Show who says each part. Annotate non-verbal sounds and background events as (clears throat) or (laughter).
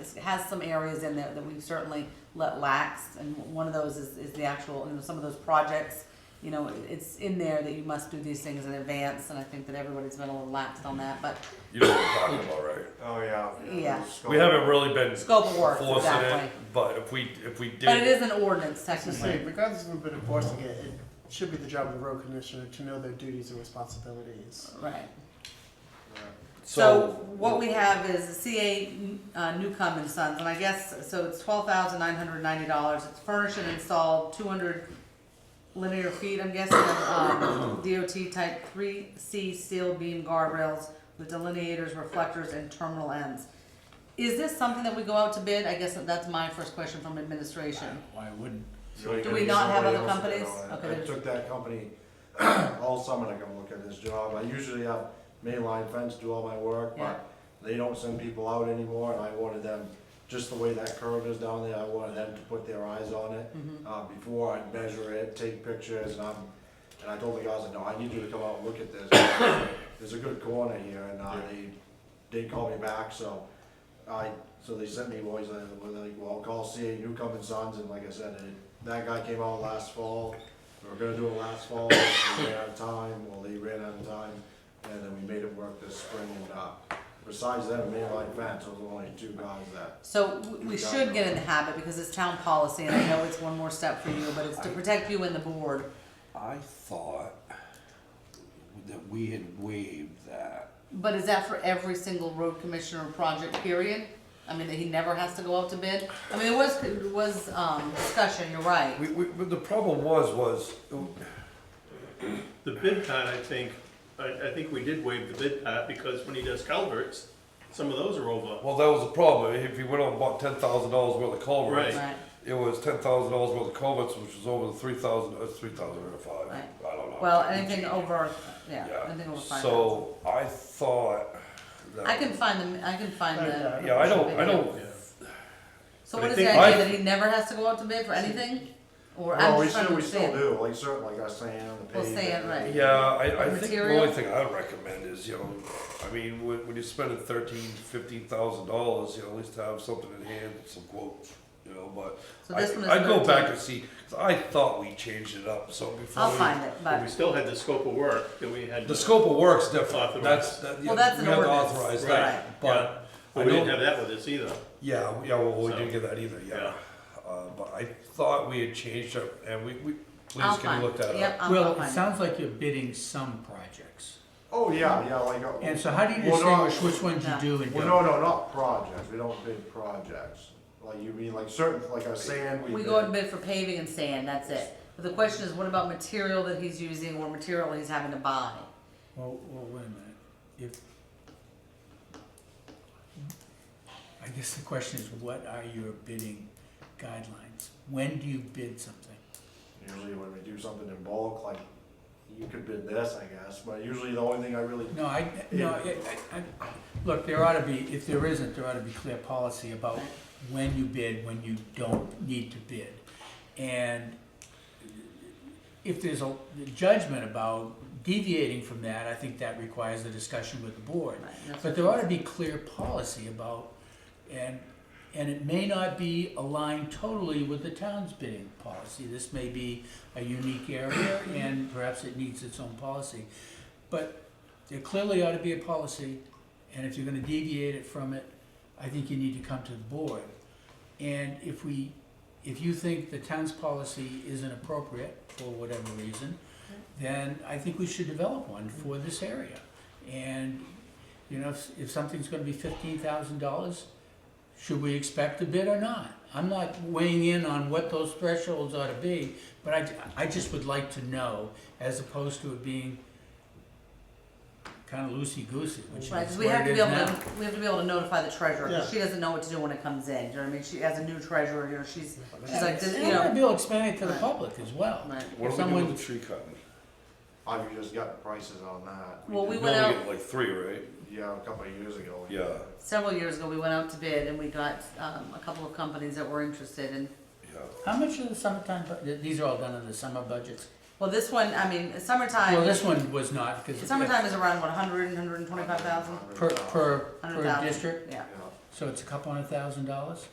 Speaker 1: it's, has some areas in there that we've certainly let lax, and one of those is, is the actual, you know, some of those projects, you know, it's in there that you must do these things in advance, and I think that everybody's been a little laxed on that, but
Speaker 2: You know what I'm talking about, right?
Speaker 3: Oh, yeah.
Speaker 1: Yeah.
Speaker 2: We haven't really been
Speaker 1: Scope of work,
Speaker 2: forcing
Speaker 1: exactly.
Speaker 2: it, but if we if we did,
Speaker 1: But it is an ordinance
Speaker 4: As I say,
Speaker 1: technically.
Speaker 4: regardless of we've been enforcing it, it should be the job of the road commissioner to know their duties and responsibilities.
Speaker 1: Right. So
Speaker 2: so,
Speaker 1: what we have is the CA uh, Newcomb and Sons, and I guess, so it's twelve thousand nine hundred ninety dollars. It's furnished and installed, two hundred linear feet, I'm guessing, of um, DOT type three C steel beam guardrails with delineators, reflectors, and terminal ends. Is this something that we go out to bid? I guess that's my first question from administration.
Speaker 5: Why wouldn't?
Speaker 1: Do we not have other companies?
Speaker 3: I
Speaker 1: Okay.
Speaker 3: took that company (clears throat) all summer to come look at this job. I usually have mainline fence do all my work,
Speaker 1: Yeah.
Speaker 3: but they don't send people out anymore, and I wanted them, just the way that curve is down there, I wanted them to put their eyes on it.
Speaker 1: Mm-hmm.
Speaker 3: Uh, before I'd measure it, take pictures, and I'm, and I told the guys, no, I need you to come out and look at this. (coughs) There's a good corner here, and, uh, they, they called me back, so I, so they sent me boys, I, well, they're like, well, call CA Newcomb and Sons, and like I said, it- that guy came out last fall, we were gonna do it last fall, (coughs) we ran out of time, well, they ran out of time, and then we made it work this spring, and, uh, besides that, mainline fence, there was only two guys that,
Speaker 1: So we- we should get in the habit, because it's town policy, and I know it's one more step for you, but it's to protect you and the board.
Speaker 5: I thought that we had waived that.
Speaker 1: But is that for every single road commissioner project period? I mean, that he never has to go out to bid? I mean, it was, it was, um, discussion, you're right.
Speaker 5: We, we, but the problem was, was,
Speaker 6: The bid part, I think, I, I think we did waive the bid part, because when he does culverts, some of those are over.
Speaker 2: well, that was the problem. If you went out and bought ten thousand dollars worth of culverts,
Speaker 6: Right.
Speaker 1: Right,
Speaker 2: it was ten thousand dollars worth of culverts, which was over the three thousand, uh, three thousand or five.
Speaker 1: Right.
Speaker 2: I don't know.
Speaker 1: well, anything over, yeah,
Speaker 2: Yeah.
Speaker 1: anything over five thousand.
Speaker 2: So I thought. That
Speaker 5: uh,
Speaker 1: I can find the, I can find the.
Speaker 2: Yeah, I don't. I don't.
Speaker 6: Yeah.
Speaker 1: So
Speaker 6: but
Speaker 1: what
Speaker 6: I
Speaker 1: is the
Speaker 6: think-
Speaker 1: idea, that he never has to go out to bid for anything? Or
Speaker 3: well,
Speaker 1: I'm
Speaker 3: we
Speaker 1: just trying to
Speaker 3: still, we still
Speaker 1: understand.
Speaker 3: do, like, certain, like I was saying on the page.
Speaker 1: Well, say it right.
Speaker 2: Yeah, I, I think the
Speaker 1: Material?
Speaker 2: only thing I recommend is, you know, I mean, when, when you're spending thirteen, fifteen thousand dollars, you know, at least have something in hand, some quotes, you know, but.
Speaker 1: So this
Speaker 2: I-
Speaker 1: one is
Speaker 2: I'd go
Speaker 1: 13.
Speaker 2: back and see, 'cause I thought we changed it up, so before.
Speaker 1: I'll
Speaker 2: we-
Speaker 1: find it,
Speaker 6: But we
Speaker 1: but,
Speaker 6: still had the scope of work that we had.
Speaker 2: The scope of work's different,
Speaker 6: Authorized.
Speaker 2: that's, that, yeah,
Speaker 1: Well,
Speaker 2: we
Speaker 1: that's
Speaker 2: have
Speaker 1: an
Speaker 2: to
Speaker 1: ordinance,
Speaker 2: authorize
Speaker 1: right.
Speaker 2: that, but.
Speaker 6: But
Speaker 2: I
Speaker 6: we
Speaker 2: don't-
Speaker 6: didn't have that with us either.
Speaker 2: yeah, yeah, well, we
Speaker 6: So-
Speaker 2: didn't get that either, yeah. Uh, but I thought we had changed it, and we, we,
Speaker 1: I'll
Speaker 2: please can
Speaker 1: find,
Speaker 2: you look that up?
Speaker 1: yep, I'll I'll
Speaker 7: Well, it
Speaker 1: find it.
Speaker 7: sounds like you're bidding some projects.
Speaker 3: Oh, yeah, yeah, like. uh,
Speaker 7: And so how do you
Speaker 3: well, no,
Speaker 7: distinguish which ones you do and
Speaker 3: Well, no, no,
Speaker 7: don't?
Speaker 3: not projects, we don't bid projects, like, you mean, like, certain, like I was saying, we
Speaker 1: We
Speaker 3: bid.
Speaker 1: go out to bid for paving and sand, that's it. But the question is, what about material that he's using or material he's having to buy?
Speaker 7: Well, well, wait a minute, if. I guess the question is, what are your bidding guidelines? When do you bid something?
Speaker 3: Usually when we do something in bulk, like, you could bid this, I guess, but usually the only thing I really,
Speaker 7: No, I, no, I, I, I- look, there ought to be, if there isn't, there ought to be clear policy about when you bid, when you don't need to bid. And if there's a judgment about deviating from that, I think that requires a discussion with the board.
Speaker 1: Right, that's-
Speaker 7: But there ought to be clear policy about, and, and it may not be aligned totally with the town's bidding policy. This may be a unique area and perhaps it needs its own policy. But there clearly ought to be a policy, and if you're gonna deviate it from it, I think you need to come to the board. And if we, if you think the town's policy isn't appropriate for whatever reason, then I think we should develop one for
Speaker 1: Mm-hmm.
Speaker 7: this area. And, you know, if, if something's gonna be fifteen thousand dollars, should we expect a bid or not? I'm not weighing in on what those thresholds ought to be, but I, I just would like to know, as opposed to it being kind of loosey-goosey, which is
Speaker 1: Right,
Speaker 7: what it
Speaker 1: because
Speaker 7: is now.
Speaker 1: we have to be able to, we have to be able to notify the treasurer, 'cause
Speaker 4: Yeah.
Speaker 1: she doesn't know what to do when it comes in, do you know what I mean? She, as a new treasurer, you know, she's, she's like, this-
Speaker 7: And
Speaker 1: you
Speaker 7: I wanna
Speaker 1: know.
Speaker 7: be able to expand it to the
Speaker 1: Right.
Speaker 7: public as well.
Speaker 1: right.
Speaker 2: What
Speaker 7: If
Speaker 2: do we do
Speaker 7: someone-
Speaker 2: with the tree cutting?
Speaker 3: I've just got prices on that.
Speaker 1: Well, we
Speaker 2: We
Speaker 1: went
Speaker 2: only
Speaker 1: out,
Speaker 2: get like three, right?
Speaker 3: Yeah, a couple of years ago.
Speaker 2: Yeah.
Speaker 1: several years ago, we went out to bid and we got, um, a couple of companies that were interested and,
Speaker 2: Yeah.
Speaker 7: How much of the summertime, bu- th- these are all done in the summer budgets?
Speaker 1: well, this one, I mean,
Speaker 7: Well,
Speaker 1: summertime,
Speaker 7: this one was not, because.
Speaker 1: summertime is around, what, hundred, hundred and twenty-five thousand?
Speaker 7: Per, per,
Speaker 1: Hundred thousand?
Speaker 7: per district,
Speaker 1: Yeah,
Speaker 3: Yeah.
Speaker 7: So it's a couple hundred thousand dollars?